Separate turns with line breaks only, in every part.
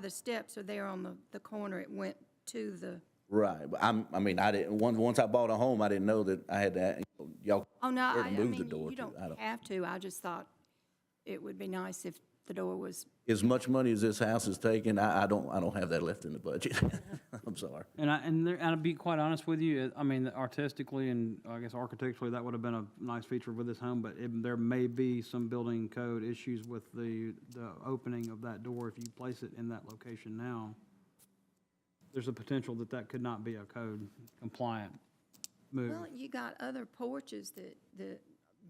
the steps are there on the, the corner, it went to the,
Right, but I'm, I mean, I didn't, once, once I bought a home, I didn't know that I had to, y'all,
oh, no,
Or
I, I
move the
mean,
door
you- you
to- I
don't
don't-
have to, I just thought it would be nice if the door was,
as much money as this house is taking, I, I don't, I don't have that left in the budget. I'm sorry.
And I, and there, and to be quite honest with you, it- I mean, artistically and I guess architecturally, that would have been a nice feature with this home, but it, there may be some building code issues with the, the opening of that door if you place it in that location now. There's a potential that that could not be a code compliant move.
well, you got other porches that, that,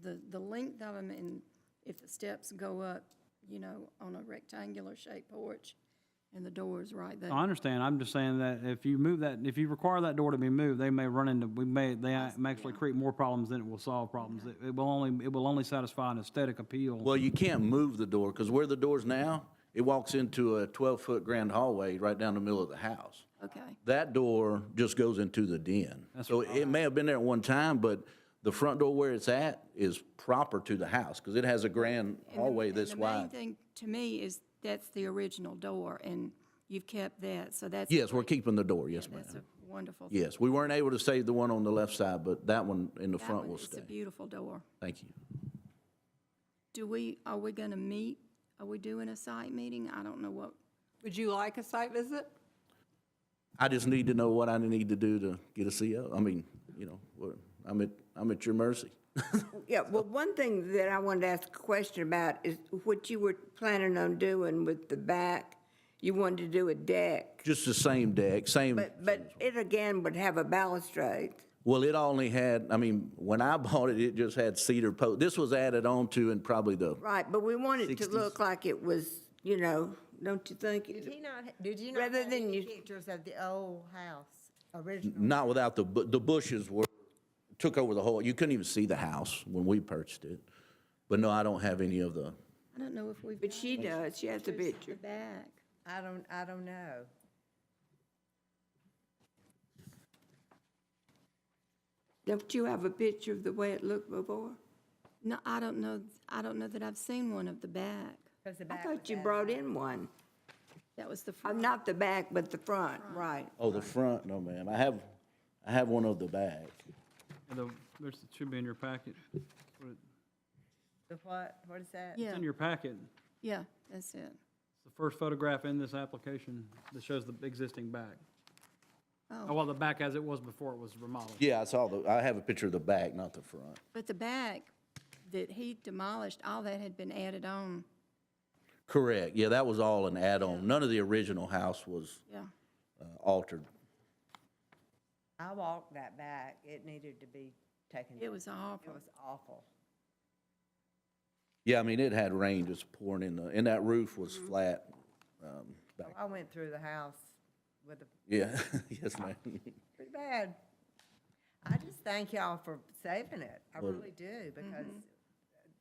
the, the length of them, and if the steps go up, you know, on a rectangular shaped porch, and the door is right there.
I understand, I'm just saying that if you move that, if you require that door to be moved, they may run into, we may, they may actually create more problems than it will solve problems. It- It will only, it will only satisfy an aesthetic appeal.
Well, you can't move the door, because where the door's now, it walks into a twelve-foot grand hallway right down the middle of the house.
Okay,
That door just goes into the den. So it may have been there at one time, but the front door where it's at is proper to the house, because it has a grand hallway this
The main
wide.
thing to me is that's the original door, and you've kept that, so that's.
Yes, we're keeping the door, yes, ma'am.
That's a wonderful. thing.
Yes, we weren't able to save the one on the left side, but that one in the
That
front
one
will
is
stay.
a beautiful door.
Thank you.
Do we, are we going to meet? Are we doing a site meeting? I don't know what,
Would you like a site visit?
I just need to know what I need to do to get a CO. I mean, you know, what- I'm at, I'm at your mercy.
Yeah, well, one thing that I wanted to ask a question about is what you were planning on doing with the back. You wanted to do a deck,
Just the same deck, same,
but, but it again would have a balustrade.
well, it only had, I mean, when I bought it, it just had cedar post. This was added on to in probably the,
Right, but we want it to look like it was, you know, don't you think?
Did he not, ha- did you not have
Rather than
any
you-
pictures of the old house, original?
not without the, bu- the bushes were, took over the whole, you couldn't even see the house when we purchased it. But no, I don't have any of the,
I don't know if we've.
But she does, she has a picture.
The back.
I don't, I don't know.
Don't you have a picture of the way it looked before?
No, I don't know, I don't know that I've seen one of the back.
'cause the
I
back was
thought you
added
brought
on.
in one.
That was the
Uh,
front.
Not the back, but the front, right.
oh, the front, no, ma'am. I have, I have one of the back.
And the- there's, it should be in your packet. It's
The what, what is that?
Yeah,
in your packet.
yeah, that's it.
It's the first photograph in this application that shows the existing back. Oh, Well, the back as it was before it was remodeled.
Yeah, I saw the, I have a picture of the back, not the front.
But the back that he demolished, all that had been added on,
Correct, yeah, that was all an add-on. None of the original house was
yeah.
uh, altered.
I walked that back, it needed to be taken.
It
down.
was awful.
It was awful.
Yeah, I mean, it had rain just pouring in the, and that roof was
Mm-hmm.
flat. Um,
So I went through the house with a,
Yeah, yes, ma'am.
pretty bad. I just thank y'all for saving it, I really do,
Mm-hmm.
because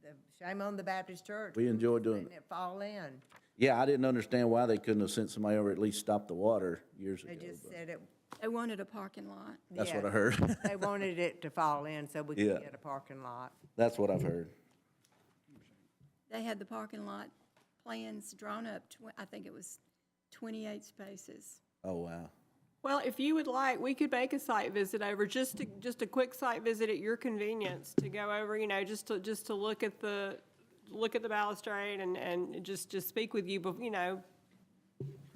the, shame on the Baptist church.
We enjoyed doing
Letting it fall in,
Yeah, I didn't understand why they couldn't have sent somebody over, at least stop the water years
they
ago.
just
but
said it.
They wanted a parking lot.
That's what
yeah.
I heard.
They wanted it to fall in so we could
Yeah.
get a parking lot.
That's what I've heard.
They had the parking lot plans drawn up, twen- I think it was 28 spaces.
Oh, wow.
Well, if you would like, we could make a site visit over, just to, just a quick site visit at your convenience to go over, you know, just to, just to look at the, look at the balustrade and, and just, just speak with you, but, you know,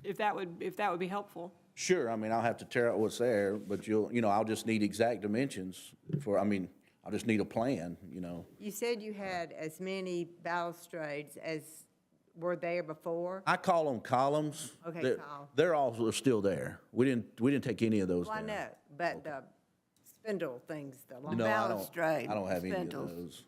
if that would, if that would be helpful.
Sure, I mean, I'll have to tear out what's there, but you'll, you know, I'll just need exact dimensions for, I mean, I'll just need a plan, you know.
You said you had as many balustrades as were there before?
I call them columns.
Okay,
They're-
column.
They're all still there. We didn't, we didn't take any of those
Well, I
down.
know, but the spindle things, the long.
No, I don't, I
Balustrade,
don't have any of
spindles.
those.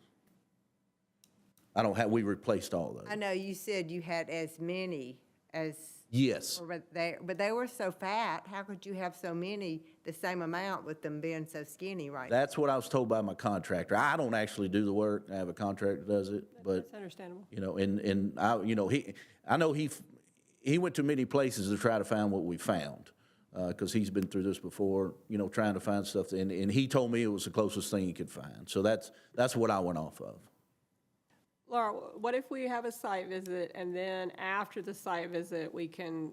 I don't have, we replaced all
I
those.
know you said you had as many as
Yes,
were there, but they were so fat, how could you have so many, the same amount with them being so skinny right now?
that's what I was told by my contractor. I don't actually do the work. I have a contractor that does it, but,
That's understandable.
you know, and, and I, you know, he, I know he, f- he went to many places to try to find what we found. Uh, cause he's been through this before, you know, trying to find stuff and, and he told me it was the closest thing he could find. So that's, that's what I went off of.
Laura, what if we have a site visit and then after the site visit, we can